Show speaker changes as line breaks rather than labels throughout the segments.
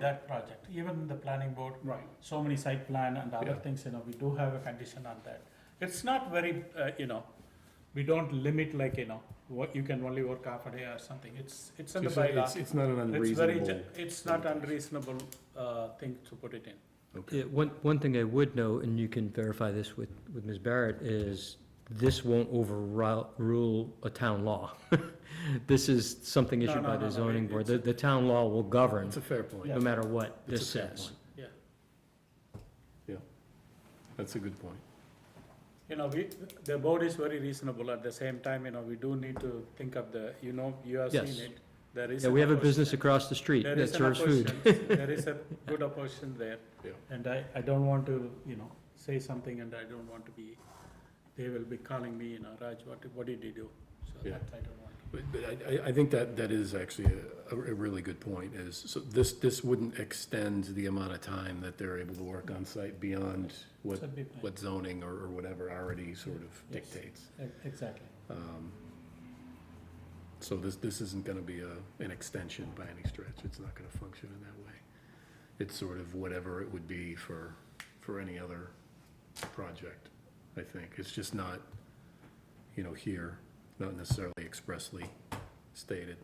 that project, even the planning board,
Right.
so many site plan and other
Yeah.
things, you know, we do have a condition on that. It's not very, uh, you know, we don't limit like, you know, what, you can only work half a day or something, it's, it's in the
So It's,
bylaw.
it's not an
It's very,
unreasonable.
ju- it's not unreasonable, uh, thing to put it in.
Okay.
Yeah, one, one thing I would know, and you can verify this with, with Ms. Barrett, is this won't overrule rule a town law. This is something
No,
issued
no,
by
no,
the
no,
zoning
it-
board. The, the town law will govern,
It's a fair point.
no matter what
It's a
this
fair
says.
point.
Yeah.
Yeah. That's a good point.
You know, we, the board is very reasonable, at the same time, you know, we do need to think of the, you know, you have seen
Yes.
it, there is.
Yeah, we
an
have a business
opposition.
across the street
There
that
is an
serves food.
opposition. There is a good opposition there.
Yeah.
And I, I don't want to, you know, say something and I don't want to be, they will be calling me, you know, Raj, what, what did you do? So
Yeah.
that I don't want.
But but I, I- I think that, that is actually a, a really good point is, so this, this wouldn't extend the amount of time that they're able to work on site beyond what,
So be fine.
what zoning or, or whatever already sort of
Yes.
dictates.
E- Exactly.
Um, So this, this isn't gonna be a, an extension by any stretch, it's not gonna function in that way. It's sort of whatever it would be for, for any other project, I think, it's just not, you know, here, not necessarily expressly stated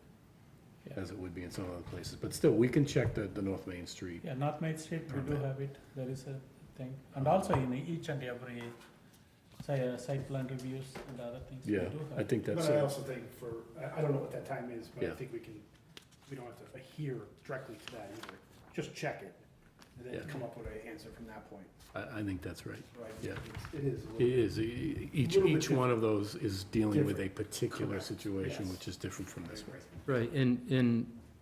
Yeah.
as it would be in some other places, but still, we can check the, the North Main Street.
Yeah, North Main Street, we do
Permit.
have it, there is a thing, and also in each and every, say, uh, site plan reviews and other things, we do
Yeah,
have.
I
it.
think that's,
But I
it.
also think for, I, I don't know what that time is, but I
Yeah.
think we can, we don't have to adhere directly to that either. Just check it, and then
Yeah.
come up with an answer from that point,
I, I think that's right.
right?
Yeah.
It's- It is. a little-
It is, E- each,
Little bit
each one of those is dealing with a particular situation,
Yes.
which is different from this one.
Right, and, and,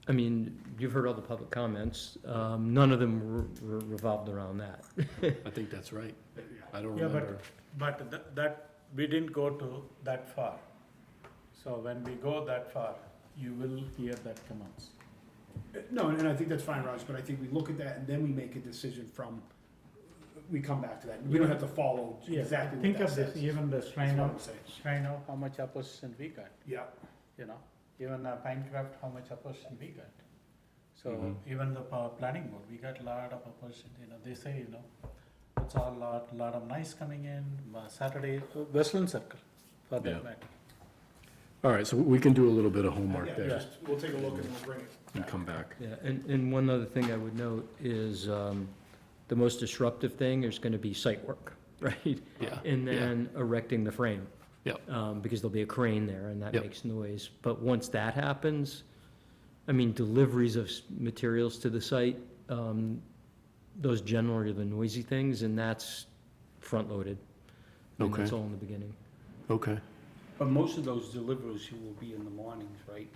I mean, you've heard all the public comments. Um, none of them re- re- revolved around that.
I think that's right.
Yeah.
I don't
Yeah, but-
remember.
But tha- that, we didn't go to that far. So when we go that far, you will hear that comments.
No, and I think that's fine, Raj, but I think we look at that and then we make a decision from, we come back to that. We don't have to follow exactly
Think
what that
of this,
says.
even the
That's
shrine
what I'm
of,
saying.
shrine of how much opposition we got,
Yeah,
you know, even uh, Pinecraft, how much opposition we got. So
Mhm.
even the pa- planning board, we got lot of opposition, you know, they say, you know, it's all lot, lot of noise coming in, ma- Saturday, uh, Westland Circle, for
Yeah.
that matter.
All right, so we can do a little bit of homework
yeah,
there
just, we'll take a look and we'll bring it.
and come back.
Yeah, and, and one other thing I would note is, um, the most disruptive thing is gonna be site work, right?
Yeah.
And
yeah.
then erecting the frame.
Yep.
Um, because there'll be a crane there and that
Yep.
makes noise. But once that happens, I mean, deliveries of s- materials to the site, um, those generally are the noisy things and that's front-loaded. And that's
Okay.
all in the beginning.
Okay,
But most of those deliveries you will be in the mornings, right?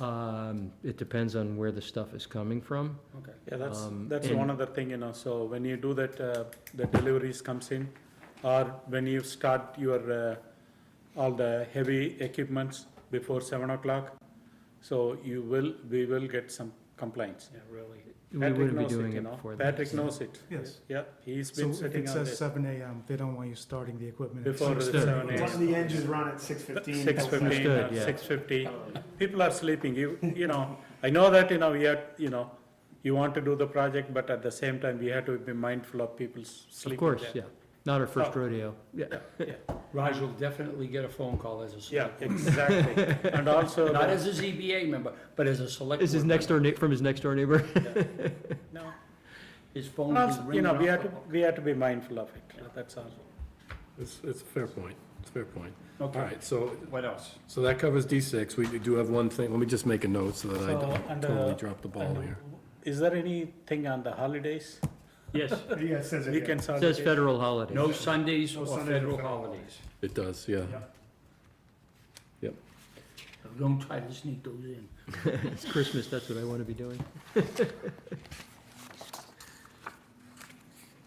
Um, it depends on where the stuff is coming from.
Okay.
Yeah, that's,
Um,
that's
and-
one other thing, you know, so when you do that, uh, the deliveries comes in, or when you start your, uh, all the heavy equipments before seven o'clock, so you will, we will get some complaints.
Yeah, really.
We
Patrick
wouldn't be
knows it,
doing
you
it
know.
before that.
Patrick
so.
knows it,
Yes.
yeah, he's
So
been
if
sitting
it
on
says
this
seven AM, they don't want you starting the equipment. at
before the
6:30.
seven
One of the engines run at six fifteen.
Six
Understood,
fifteen, uh,
yeah.
six
Oh,
fifty, people are sleeping, you, you know, I know that, you know, we are, you know, you want to do the project, but at the same time, we have to be mindful of people's sleeping.
Of course,
there.
yeah. Not our first
Oh.
rodeo. Yeah.
Raj will definitely get a phone call as a
Yeah,
select.
exactly. And also,
Not
the-
as a ZBA member, but as a select.
Is his
board
next door, nei- from his next door neighbor?
no,
member. His phone
and
will
also,
ring.
you know, we
off
have
the
to,
hook.
we have to be mindful of it, that's all.
it's, it's a fair point, it's a fair point. All
Okay,
right, so,
what else?
so that covers D six, we do have one thing, let me just make a note so that I
So,
don't
and, uh,
totally drop the ball
And
here.
Is there anything on the holidays,
Yes.
Yeah, it says it. yeah.
weekends,
Says
holidays?
federal holidays.
No Sundays
No
or
Sundays or
federal
federal
holidays.
It does, yeah,
Yeah.
Don't try to sneak those in.
It's Christmas, that's what I want to be doing.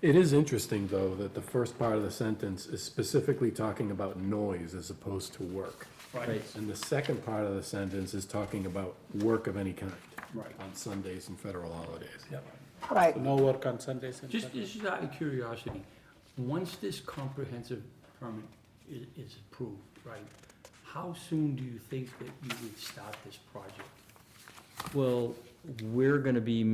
It is interesting, though, that the first part of the sentence is specifically talking about noise as opposed to work.
Right.
And the second part of the sentence is talking about work of any kind.
Right.
On Sundays and federal holidays.
Right.
No work on Sundays and
Just,
Saturdays?
this is out of curiosity. Once this comprehensive permit is, is approved, right? How soon do you think that you would start this project?
Well, we're going to be